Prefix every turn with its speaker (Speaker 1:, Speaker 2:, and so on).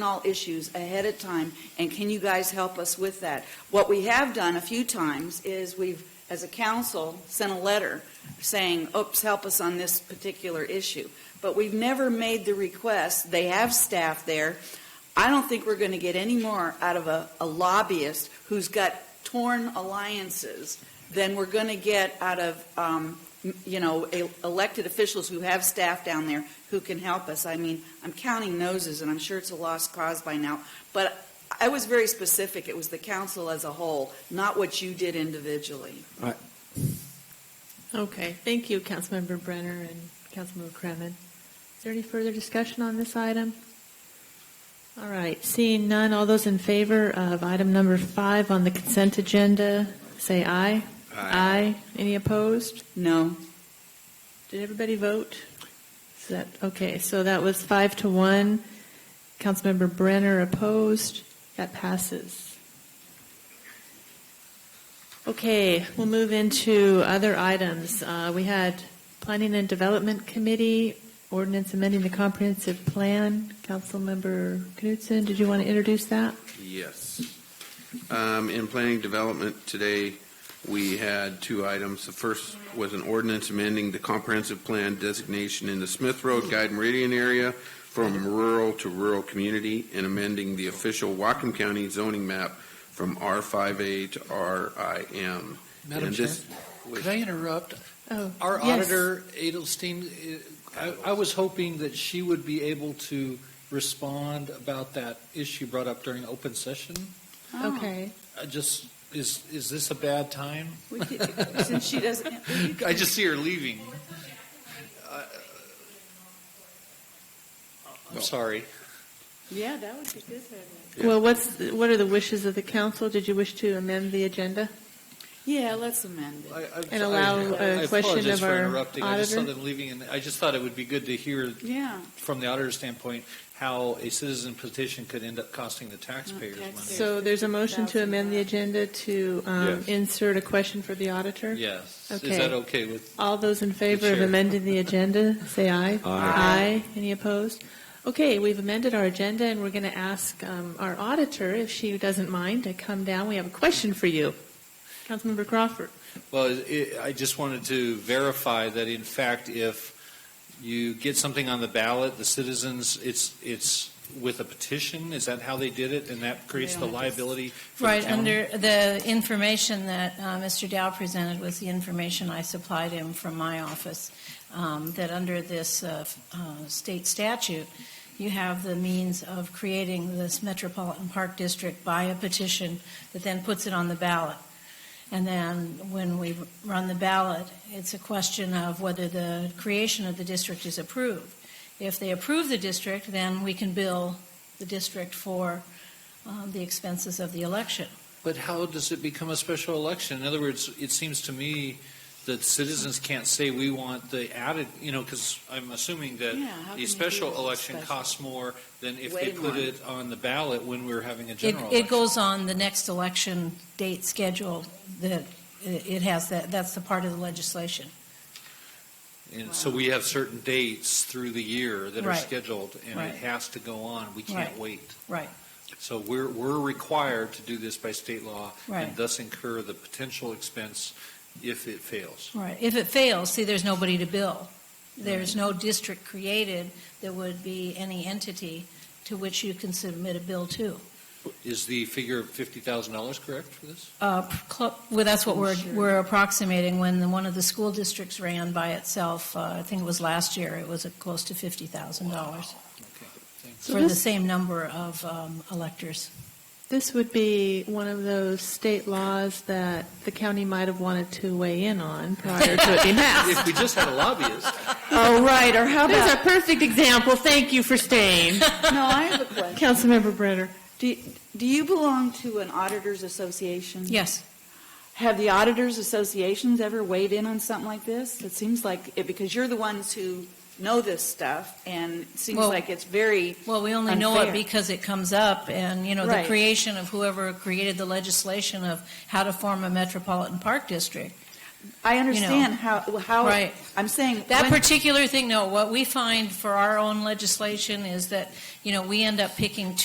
Speaker 1: all issues ahead of time, and can you guys help us with that? What we have done a few times is we've, as a council, sent a letter saying, oops, help us on this particular issue. But we've never made the request. They have staff there. I don't think we're going to get any more out of a a lobbyist who's got torn alliances than we're going to get out of, um, m- you know, e- elected officials who have staff down there who can help us. I mean, I'm counting noses, and I'm sure it's a lost cause by now, but I was very specific. It was the council as a whole, not what you did individually.
Speaker 2: Okay, thank you, Councilmember Brenner and Councilmember Kremen. Is there any further discussion on this item? All right, seeing none, all those in favor of item number five on the consent agenda, say aye. Aye. Any opposed?
Speaker 1: No,
Speaker 2: Did everybody vote? Is that, okay, so that was five to one. Councilmember Brenner opposed. That passes. Okay, we'll move into other items. Uh, We had Planning and Development Committee, ordinance amending the comprehensive plan. Councilmember Knutson, did you want to introduce that?
Speaker 3: Yes. Um, In planning development today, we had two items. The first was an ordinance amending the comprehensive plan designation in the Smith Road Guide Meridian area from rural to rural community and amending the official Whatcom County zoning map from R5A to RIM.
Speaker 4: Madam
Speaker 3: And
Speaker 4: Chair,
Speaker 3: this-
Speaker 4: could I interrupt?
Speaker 2: Oh,
Speaker 4: Our
Speaker 2: yes.
Speaker 4: auditor, Edelstein, uh, I I was hoping that she would be able to respond about that issue brought up during open session.
Speaker 1: Oh.
Speaker 2: Okay.
Speaker 4: I just, is, is this a bad time?
Speaker 1: We could- since she doesn't. you could-
Speaker 4: I just see her leaving. Uh, I'm sorry.
Speaker 1: Yeah, that would be good.
Speaker 2: Well, what's, what are the wishes of the council? Did you wish to amend the agenda?
Speaker 1: Yeah, let's amend it.
Speaker 4: I- I-
Speaker 2: And allow
Speaker 4: I-
Speaker 2: a
Speaker 4: I
Speaker 2: question
Speaker 4: apologize
Speaker 2: of
Speaker 4: for
Speaker 2: our
Speaker 4: interrupting. I just saw
Speaker 2: auditor.
Speaker 4: them leaving, and I just thought it would be good to hear
Speaker 1: Yeah.
Speaker 4: from the auditor's standpoint how a citizen petition could end up costing the taxpayers money.
Speaker 1: Taxpayers.
Speaker 2: So there's a motion to amend the agenda to um,
Speaker 3: Yes.
Speaker 2: insert a question for the auditor?
Speaker 4: Yes.
Speaker 2: Okay.
Speaker 4: Is that okay with,
Speaker 2: All those in favor
Speaker 4: The
Speaker 2: of
Speaker 4: chair.
Speaker 2: amending the agenda, say aye. Aye. Any opposed? Okay, we've amended our agenda, and we're going to ask um, our auditor, if she doesn't mind, to come down. We have a question for you. Councilmember Crawford.
Speaker 4: well, it- I just wanted to verify that in fact, if you get something on the ballot, the citizens, it's, it's with a petition? Is that how they did it? And that creates the
Speaker 1: don't have to-
Speaker 4: liability for the
Speaker 5: Right,
Speaker 4: town?
Speaker 5: under the information that uh, Mr. Dow presented was the information I supplied him from my office, um, that under this uh, f- uh, state statute, you have the means of creating this Metropolitan Park District by a petition that then puts it on the ballot. And then when we run the ballot, it's a question of whether the creation of the district is approved. If they approve the district, then we can bill the district for um, the expenses of the election.
Speaker 4: But how does it become a special election? In other words, it seems to me that citizens can't say we want the added, you know, because I'm assuming that
Speaker 1: Yeah, how can you do
Speaker 4: a special
Speaker 1: it as a
Speaker 4: election
Speaker 1: special?
Speaker 4: costs more than if
Speaker 1: Way
Speaker 4: they put
Speaker 1: more.
Speaker 4: it on the ballot when we're having a
Speaker 5: It,
Speaker 4: general
Speaker 5: it
Speaker 4: election.
Speaker 5: goes on the next election date schedule that it it has that, that's the part of the legislation.
Speaker 4: And so we have certain dates through the year that are
Speaker 5: Right.
Speaker 4: scheduled, and
Speaker 5: Right.
Speaker 4: it has to go on. We can't
Speaker 5: Right.
Speaker 4: wait.
Speaker 5: Right.
Speaker 4: So we're, we're required to do this by state law and
Speaker 5: Right.
Speaker 4: thus incur the potential expense if it fails.
Speaker 5: Right. If it fails, see, there's nobody to bill. There's no district created that would be any entity to which you can submit a bill to.
Speaker 4: Is the figure of $50,000 correct for this?
Speaker 5: Uh, cl- Well, that's what we're, we're approximating. When the- one of the school districts ran by itself, uh, I think it was last year, it was uh, close to $50,000.
Speaker 4: Okay, thanks.
Speaker 2: So
Speaker 5: for the
Speaker 2: this-
Speaker 5: same number of um, electors.
Speaker 2: This would be one of those state laws that the county might have wanted to weigh in on prior to it being passed.
Speaker 4: If we just had a lobbyist,
Speaker 2: Oh, right, or how about... There's a perfect example. Thank you for staying.
Speaker 1: No, I have a question.
Speaker 2: Councilmember Brenner.
Speaker 1: Do do you belong to an auditors association?
Speaker 5: Yes.
Speaker 1: Have the auditors associations ever weighed in on something like this? It seems like, it because you're the ones who know this stuff, and it seems
Speaker 5: Well-
Speaker 1: like it's very,
Speaker 5: Well, we only know it
Speaker 1: Unfair.
Speaker 5: because it comes up, and, you know, the
Speaker 1: Right.
Speaker 5: creation of whoever created the legislation of how to form a metropolitan park district.
Speaker 1: I understand how, how.
Speaker 5: Right.
Speaker 1: I'm saying,
Speaker 5: That
Speaker 1: when-
Speaker 5: particular thing, no, what we find for our own legislation is that, you know, we end up picking